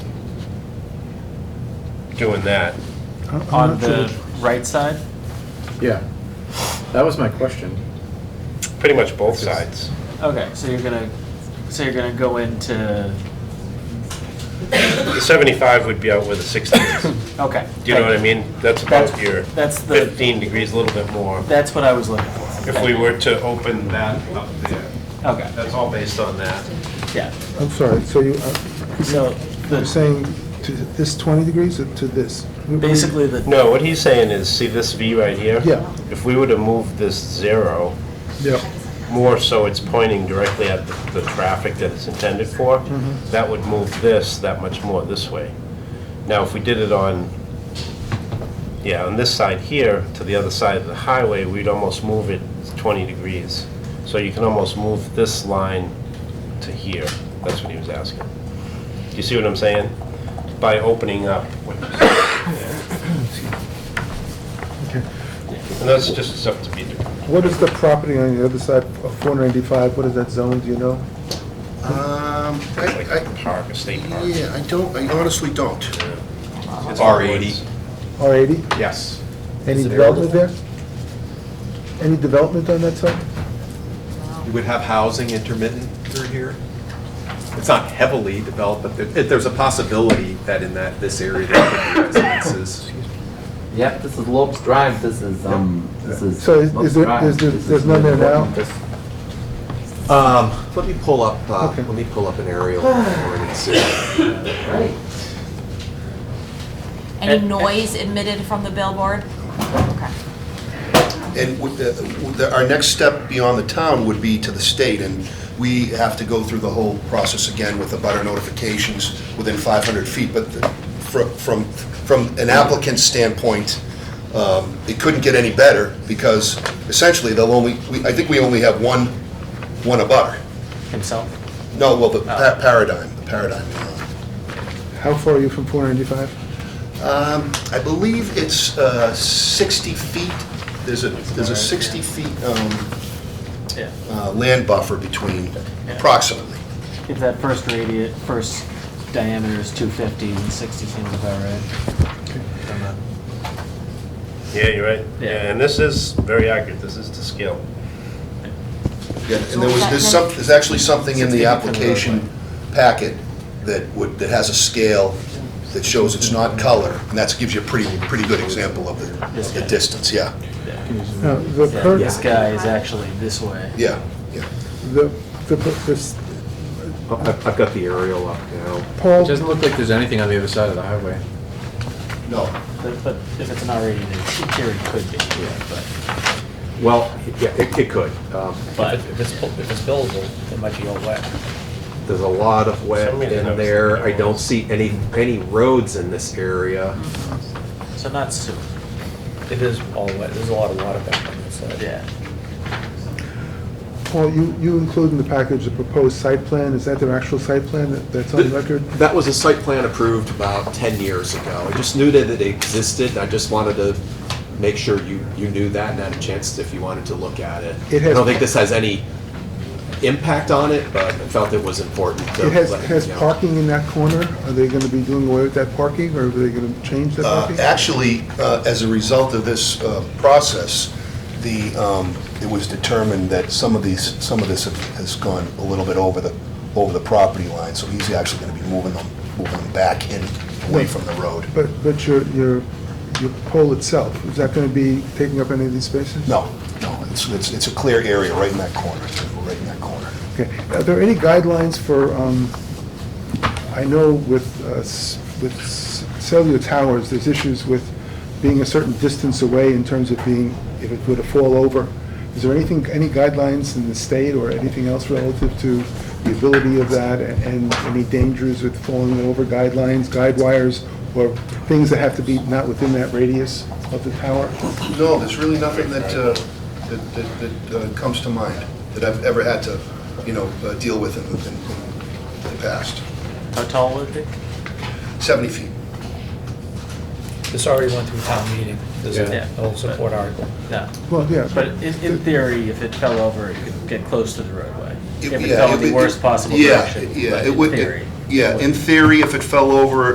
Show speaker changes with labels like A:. A: doing that.
B: Uh, I'm not
C: on
B: sure
C: the
B: that's-
C: right side?
D: Yeah, that was my question.
A: Pretty much both sides.
C: Okay, so you're gonna, so you're gonna go into,
A: The 75 would be out where the 60 is.
C: okay.
A: Do you know what I mean? That's
C: That's,
A: about your
C: that's the,
A: 15 degrees, a little bit more.
C: that's what I was looking for.
A: If we were to open that up there,
C: Okay,
A: that's all based on that.
C: yeah,
B: I'm sorry, so you, uh,
C: so
B: you're
C: the,
B: saying to this 20 degrees or to this?
C: basically the,
A: No, what he's saying is, see this V right here?
B: Yeah.
A: If we were to move this zero,
B: Yeah,
A: more so it's pointing directly at the, the traffic that it's intended for, that would move this that much more this way. Now, if we did it on, yeah, on this side here to the other side of the highway, we'd almost move it 20 degrees. So you can almost move this line to here. That's what he was asking. Do you see what I'm saying? By opening up. what you said.
B: okay.
A: And that's just stuff to be,
B: What is the property on the other side of 495? What is that zone, do you know?
E: Um,
A: like
E: I,
A: a park, a state
E: I,
A: park.
E: yeah, I don't, I honestly don't.
A: It's
F: R80.
B: R80?
A: Yes.
B: Any development there? Any development on that side?
F: You would have housing intermittent through here. It's not heavily developed, but there- there's a possibility that in that, this area, there could be residences.
G: Yep, this is Lopes Drive, this is, um, this is.
B: So is-
G: Lopes
B: is there-
G: Drive.
B: is there-
G: This is
B: there's none there now?
G: This-
F: Um, Let me pull up, uh,
B: Okay.
F: let me pull up an aerial for you and see.
G: Right.
C: And-
H: Any noise emitted from the billboard? Okay.
E: And would the, would the- our next step beyond the town would be to the state, and we have to go through the whole process again with the butter notifications within 500 feet, but the- fro- from, from an applicant's standpoint, um, it couldn't get any better, because essentially, they'll only, we- I think we only have one, one abutter.
C: himself,
E: No, well, the pa- paradigm, the paradigm.
B: How far are you from 495?
E: Um, I believe it's uh, 60 feet, there's a, there's a 60 feet um,
C: yeah.
E: uh, land buffer between, approximately.
C: If that first radius, first diameter is 250 and 60 seems about right. Don't know.
A: Yeah, you're right.
C: Yeah.
A: Yeah, and this is very accurate. This is to scale.
E: Yeah, and there was, there's some, there's actually something in the application packet that would, that has a scale that shows it's not color, and that gives you a pretty, pretty good example of the, the distance, yeah,
B: Now, the
C: Yeah,
B: per-
C: This guy is actually this way.
E: yeah, yeah.
B: the- the per- this-
F: Oh, I've I've got the aerial up now.
B: Paul,
D: look like there's anything on the other side of the highway.
E: No,
C: But but if it's an R80, then in theory it could be, but,
F: Well, yeah, it it could. Um,
C: but.
I: If it's, bu- if it's buildable, it might be all wet.
F: There's a lot of wet
A: Some reason I
F: in
A: was
F: there. I
A: thinking
F: don't
A: of-
F: see any, any roads in this area.
C: So not sewer,
I: It is all wet, there's a lot of water back on this side.
C: yeah.
B: Paul, you, you include in the package the proposed site plan, is that their actual site plan that- that's on record?
F: That was a site plan approved about 10 years ago. I just knew that it existed, I just wanted to make sure you, you knew that and had a chance if you wanted to look at it.
B: It has-
F: I don't think this has any impact on it, but I felt it was important to.
B: It has,
F: let you
B: has
F: know.
B: parking in that corner, are they gonna be doing away with that parking, or are they gonna change that
E: Uh,
B: parking?
E: Actually, uh, as a result of this uh, process, the, um, it was determined that some of these, some of this have- has gone a little bit over the, over the property line, so he's actually going to be moving them, moving them back in, away from the road.
B: But, but your, your, your pole itself, is that gonna be taking up any of these spaces?
E: No, no, it's, it's it's a clear area right in that corner, right in that corner.
B: Okay, are there any guidelines for, um, I know with, uh, s- with s- cellular towers, there's issues with being a certain distance away in terms of being, if it were to fall over. Is there anything, any guidelines in the state or anything else relative to the ability of that and- and any dangers with falling over guidelines, guide wires, or things that have to be not within that radius of the tower?
E: No, there's really nothing that, uh, that- that, that uh, comes to mind, that I've ever had to, you know, uh, deal with in the- in the past.
C: How tall would it be?
E: 70 feet.
I: This already went through town meeting, there's
C: Yeah.
I: a whole support article.
C: No.
B: Well, yeah.
C: But in, in theory, if it fell over, it could get close to the roadway. If
E: It-
C: it
E: yeah,
C: fell in
E: it-
C: the worst possible
E: yeah,
C: direction.
E: Yeah,
C: but
E: it
C: in
E: would, it-
C: theory.
E: yeah, in theory, if it fell over,